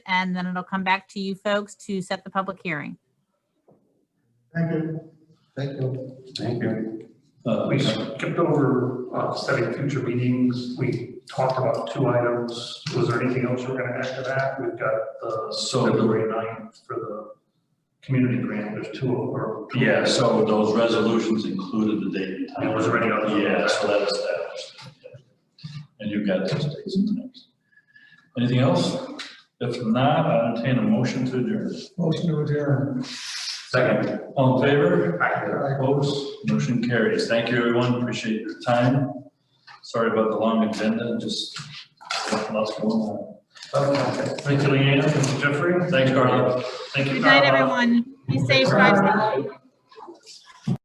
and then it'll come back to you folks to set the public hearing. Thank you. Thank you. Thank you. Uh, We skipped over uh, setting future meetings. We talked about two items. Was there anything else we're going to add to that? We've got the So the- February 9th for the community grant. There's two of or Yeah, so those resolutions included the date and time. It was already on the- Yeah, so that is that. And you've got those dates and times. Anything else? If not, I entertain a motion to adjourn. Motion to adjourn. Second. All in favor? Aye. Opposed? Motion carries. Thank you, everyone. Appreciate your time. Sorry about the long agenda, just lots going on. Okay. Thank you, Leanne and Jeffrey. Thanks, Carla. Thank you. Good night, Carla. everyone. Be safe, drive safe.